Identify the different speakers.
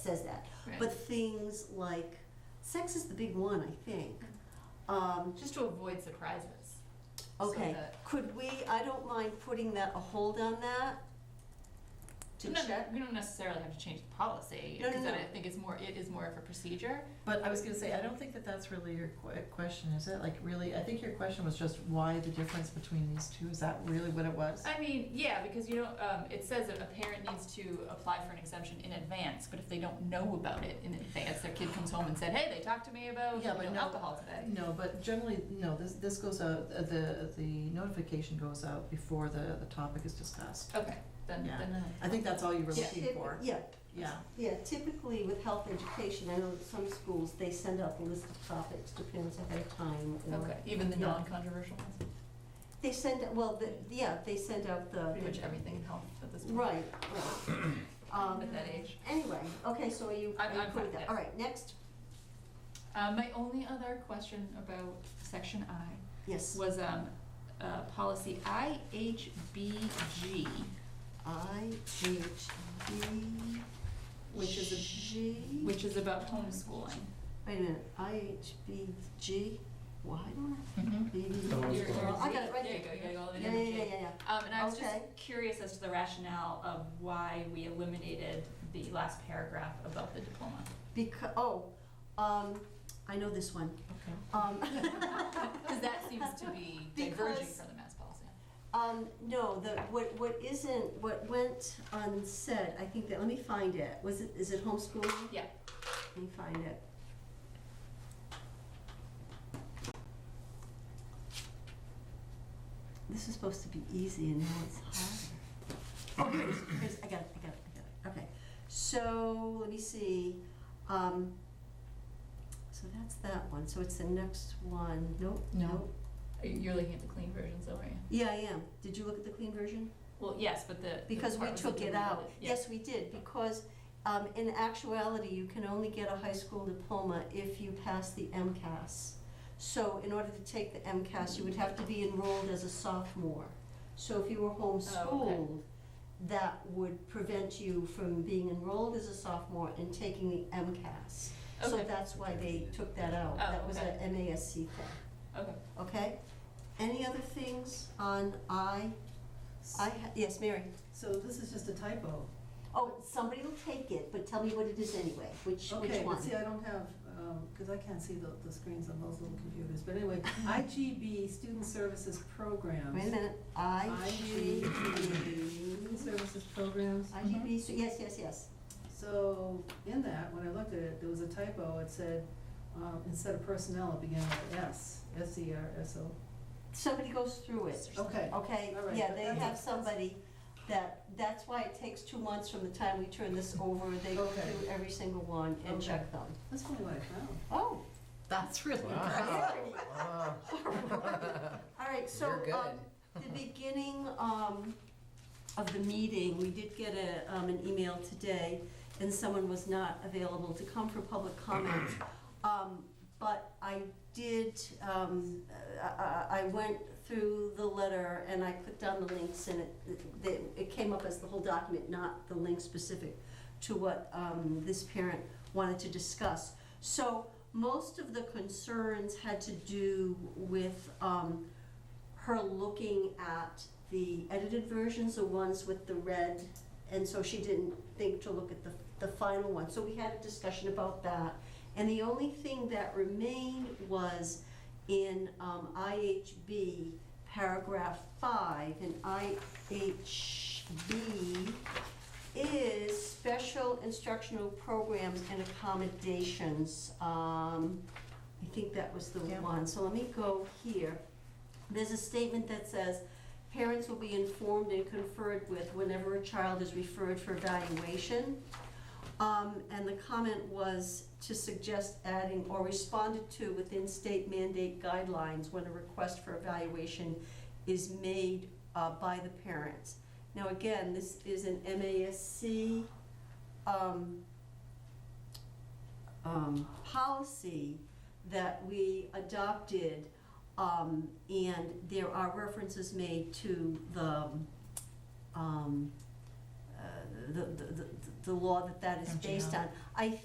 Speaker 1: things like, sex is the big one, I think. Um,
Speaker 2: Just to avoid surprises. Mm. So
Speaker 1: okay,
Speaker 2: that-
Speaker 1: could we, I don't mind putting that, a hold on that? To
Speaker 2: No, no,
Speaker 1: check?
Speaker 2: We don't necessarily have to change the policy,
Speaker 1: No, no,
Speaker 2: because then
Speaker 1: no.
Speaker 2: I think it's more, it is more of a procedure.
Speaker 3: But I was gonna say, I don't think that that's really your que- question, is it? Like, really, I think your question was just why the difference between these two, is that really what it was?
Speaker 2: I mean, yeah, because you know, um, it says that a parent needs to apply for an exemption in advance, but if they don't know about it in advance, their kid comes home and said, hey, they talked to me about, you
Speaker 3: Yeah, but
Speaker 2: know,
Speaker 3: no-
Speaker 2: alcohol today.
Speaker 3: No, but generally, no, this, this goes out, uh, the, the notification goes out before the, the topic is discussed.
Speaker 2: Okay, then,
Speaker 3: Yeah.
Speaker 2: then, uh,
Speaker 3: I think that's all you were
Speaker 1: Yeah,
Speaker 3: looking
Speaker 1: typ-
Speaker 3: for.
Speaker 1: Yeah,
Speaker 3: Yeah,
Speaker 1: yeah, typically with health education, I know that some schools, they send out the list of topics, depends ahead of time. or-
Speaker 2: okay, even the
Speaker 1: Yeah.
Speaker 2: non-controversial ones,
Speaker 1: They send, well, the, yeah, they send out the.
Speaker 2: pretty much everything in health at this point.
Speaker 1: Right, right. Um,
Speaker 2: At that age.
Speaker 1: Anyway, okay, so are you,
Speaker 2: I'm-
Speaker 1: are you
Speaker 2: I'm
Speaker 1: cool
Speaker 2: fine,
Speaker 1: with that?
Speaker 2: yeah.
Speaker 1: All right, next,
Speaker 2: Uh, my only other question about section I
Speaker 1: yes,
Speaker 2: was um, uh, policy IHBG,
Speaker 1: I H B
Speaker 2: Which is a-
Speaker 1: G.
Speaker 2: which is about homeschooling.
Speaker 1: Wait a minute, I H B G, why don't I
Speaker 3: Mhm.
Speaker 1: B?
Speaker 4: Oh,
Speaker 2: Your- your
Speaker 4: Homeschooling.
Speaker 1: I got it right
Speaker 2: There you go,
Speaker 1: there.
Speaker 2: you got it all the way
Speaker 1: Yeah,
Speaker 2: down to
Speaker 1: yeah, yeah,
Speaker 2: J.
Speaker 1: yeah, yeah.
Speaker 2: Um, and I was
Speaker 1: Okay.
Speaker 2: just curious as to the rationale of why we eliminated the last paragraph about the diploma.
Speaker 1: Becau- oh, um, I know this one.
Speaker 3: okay.
Speaker 1: Um,
Speaker 2: Because that seems to be diverging
Speaker 1: Because-
Speaker 2: from the mass policy.
Speaker 1: Um, no, the, what, what isn't, what went unsaid, I think that, let me find it, was it, is it homeschooling?
Speaker 2: Yeah.
Speaker 1: Let me find it. This is supposed to be easy and now it's harder. Okay, here's- I got it, I got it, I got it, okay. So, let me see, um, so that's that one, so it's the next one, nope,
Speaker 3: No.
Speaker 1: nope.
Speaker 2: You're looking at the clean version, so are you?
Speaker 1: Yeah, I am. Did you look at the clean version?
Speaker 2: Well, yes, but the. the
Speaker 1: Because we
Speaker 2: part was
Speaker 1: took it
Speaker 2: deleted,
Speaker 1: out.
Speaker 2: yeah.
Speaker 1: Yes, we did, because um, in actuality, you can only get a high school diploma if you pass the MCAS. So in order to take the MCAS, you would have to be enrolled as a sophomore. So if you
Speaker 2: Oh,
Speaker 1: were homeschooled, that would prevent you from being enrolled as a sophomore and taking the MCAS. So
Speaker 2: Okay.
Speaker 1: that's why they took that out.
Speaker 2: Oh,
Speaker 1: That was a
Speaker 2: okay.
Speaker 1: MASC thing,
Speaker 2: Okay.
Speaker 1: okay? Any other things on I? I, ha- yes, Mary?
Speaker 3: So this is just a typo.
Speaker 1: Oh, somebody will take it, but tell me what it is anyway, which, which
Speaker 5: Okay,
Speaker 1: one?
Speaker 5: but see, I don't have, because I can't see the, the screens on those little computers, but anyway, IGB, Student Services Programs.
Speaker 1: Wait a minute, I G
Speaker 5: IGB,
Speaker 1: B.
Speaker 5: Services Programs.
Speaker 1: I G B,
Speaker 5: Uh-huh.
Speaker 1: so, yes, yes, yes.
Speaker 5: So, in that, when I looked at it, there was a typo, it said, um, instead of personnel, it began with S, S E R S O.
Speaker 1: Somebody goes through it,
Speaker 5: Okay,
Speaker 1: okay?
Speaker 5: All right,
Speaker 1: Yeah,
Speaker 5: but
Speaker 1: they
Speaker 5: that's-
Speaker 1: have somebody that, that's why it takes two months from the time we turn this over. They go
Speaker 5: Okay.
Speaker 1: through every single one and
Speaker 5: Okay.
Speaker 1: check them.
Speaker 5: that's only what I found.
Speaker 1: Oh,
Speaker 3: That's really impressive.
Speaker 4: Wow, wow.
Speaker 1: all right, so,
Speaker 4: You're good.
Speaker 1: um, the beginning um, of the meeting, we did get a, um, an email today, and someone was not available to come for public comment. Um, But I did, um, I- I I went through the letter and I clicked on the links, and it- it it came up as the whole document, not the link specific to what um, this parent wanted to discuss. So most of the concerns had to do with um, her looking at the edited versions, the ones with the red, and so she didn't think to look at the, the final one. So we had a discussion about that. And the only thing that remained was in um, IHB, paragraph five, and IHB is special instructional programs and accommodations. Um, I think that was the
Speaker 3: Yeah.
Speaker 1: one, so let me go here. There's a statement that says, parents will be informed and conferred with whenever a child is referred for evaluation. Um, and the comment was to suggest adding or responded to within state mandate guidelines when a request for evaluation is made, uh, by the parents. Now, again, this is an MASC, um, um, policy that we adopted, um, and there are references made to the, um, uh, the, the, the- the law that that is based on. I